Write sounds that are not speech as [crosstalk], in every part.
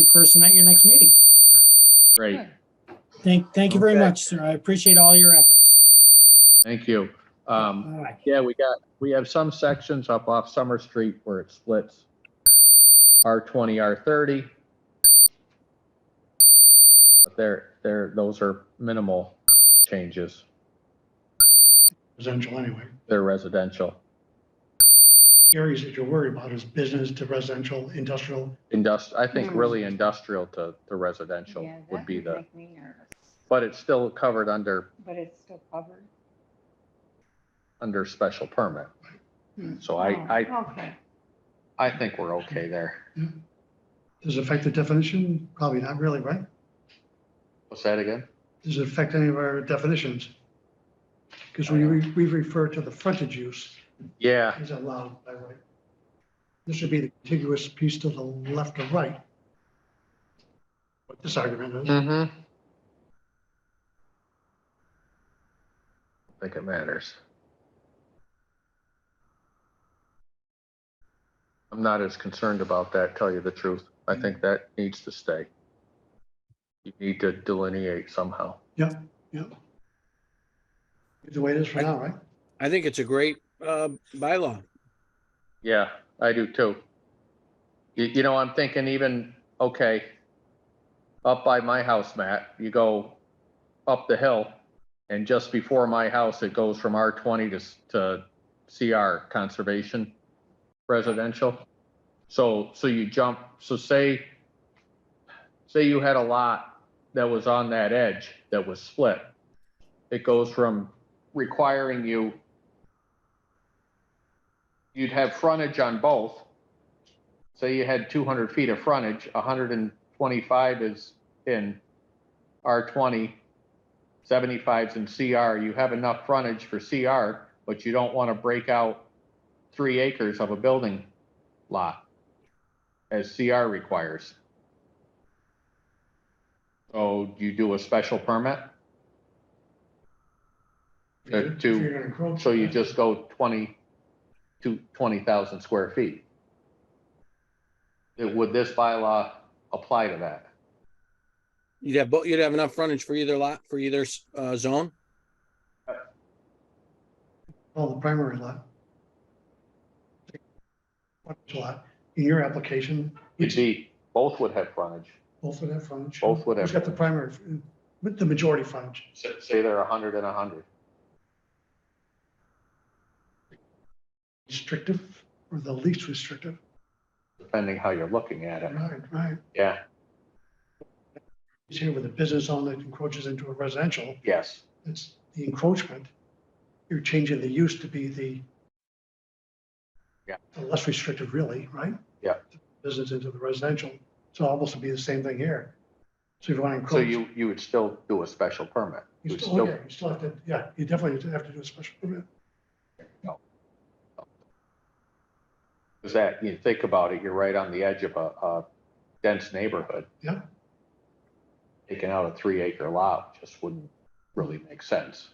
in person at your next meeting. Great, Thank, thank you very Okay. much, sir. I appreciate all your efforts. thank you. All Um, right. yeah, we got, we have some sections up off Summer Street where it splits. R twenty, R thirty. But they're, they're, those are minimal changes. residential anyway. They're residential, Areas that you're worried about is business to residential, industrial. indust, I think Hmm. really industrial to, to residential Yeah, would that be would the, Make me nervous, but it's still covered under, but it's still covered. under special permit. Hmm. So I, I, Oh, Okay, I think we're okay there. Does it affect the definition? Probably not really, right? What's that again? Does it affect any of our definitions? Because we, re- we refer to the frontage use Yeah, as allowed by right. This would be the contiguous piece to the left or right. What this argument is. Mm-hmm. Think it matters. I'm not as concerned about that, tell you the truth. I think that needs to stay. You need to delineate somehow. Yep, yep. It's the way it is for now, right? I think it's a great uh, bylaw. Yeah, I do too. You, you know, I'm thinking even, okay, up by my house, Matt, you go up the hill and just before my house, it goes from R twenty to, s- to CR conservation residential. So, so you jump, so say, say you had a lot that was on that edge that was split. It goes from requiring you you'd have frontage on both. Say you had two hundred feet of frontage, hundred and twenty-five is in R 20 75s in CR, you have enough frontage for CR, but you don't want to break out three acres of a building lot as CR requires. So you do a special permit, Uh, If you're- if two. you're gonna encroach- so you just go twenty to twenty thousand square feet. Would this bylaw apply to that? You'd have, bo- you'd have enough frontage for either lot, for either uh, zone. Well, the primary lot. Frontage lot, in your application, You'd be, both would have frontage, both would have frontage. both would Who's have, got the primary, with the majority frontage? say say they're a hundred and a hundred. Restrictive or the least restrictive? depending how you're looking at it. Right, right. Yeah, He's here with a business owner that encroaches into a residential, yes, it's the encroachment. You're changing the use to be the Yeah. the less restrictive really, right? Yeah. Business into the residential, so almost would be the same thing here. So if you want to so encroach. you, you would still do a special permit. You You would still, oh, still, yeah, you still have to, yeah, you definitely have to do a special permit. because that, you think about it, you're right on the edge of a, a dense neighborhood. Yeah. Taking out a three acre lot just wouldn't really make sense.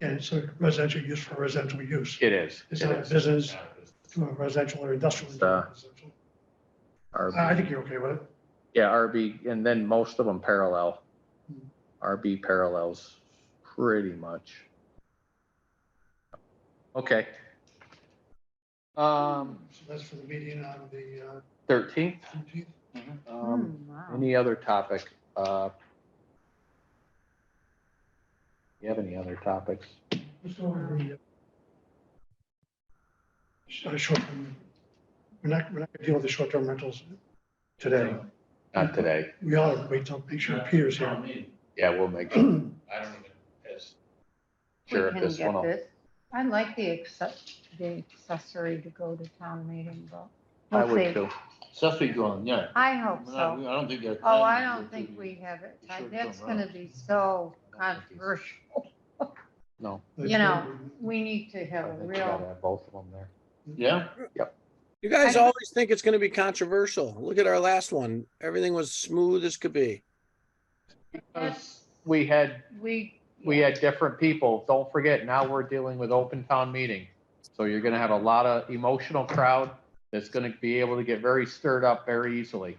And it's a residential use for residential use. It is. It's it not a is. business to a residential or industrial. use. Uh, I Uh, I think RB, you're okay with it. yeah, RB, and then most of them parallel. Hmm. RB parallels pretty much. Okay. Um, So that's for the meeting on the uh, thirteenth, fifteenth. um, Hmm, wow. Any other topic? uh, You have any other topics? uh, Short, term we're not, we're not gonna deal with the short-term rentals today. Not today. We ought to wait till, make sure Peter's here. [clears throat] Yeah, we'll make I sure- don't We sure if can this get one will. this. I like the access, the accessory to go to town meeting, but I we'll would see. too. Accessory dwelling, yeah. I hope We're not- so. I don't think that. Oh, I don't think we have it. we should That's come gonna around. be so I don't think it's- controversial. No. You know, we need to have I a think we gotta real, Hmm. have Both of them there. Yeah, You guys I- always think it's gonna be controversial. Look at our last one. Everything was smooth as could be. Yes. We had, we. we had different people. Don't forget, now we're dealing with open town meeting. So you're gonna have a lot of emotional crowd that's gonna be able to get very stirred up very easily.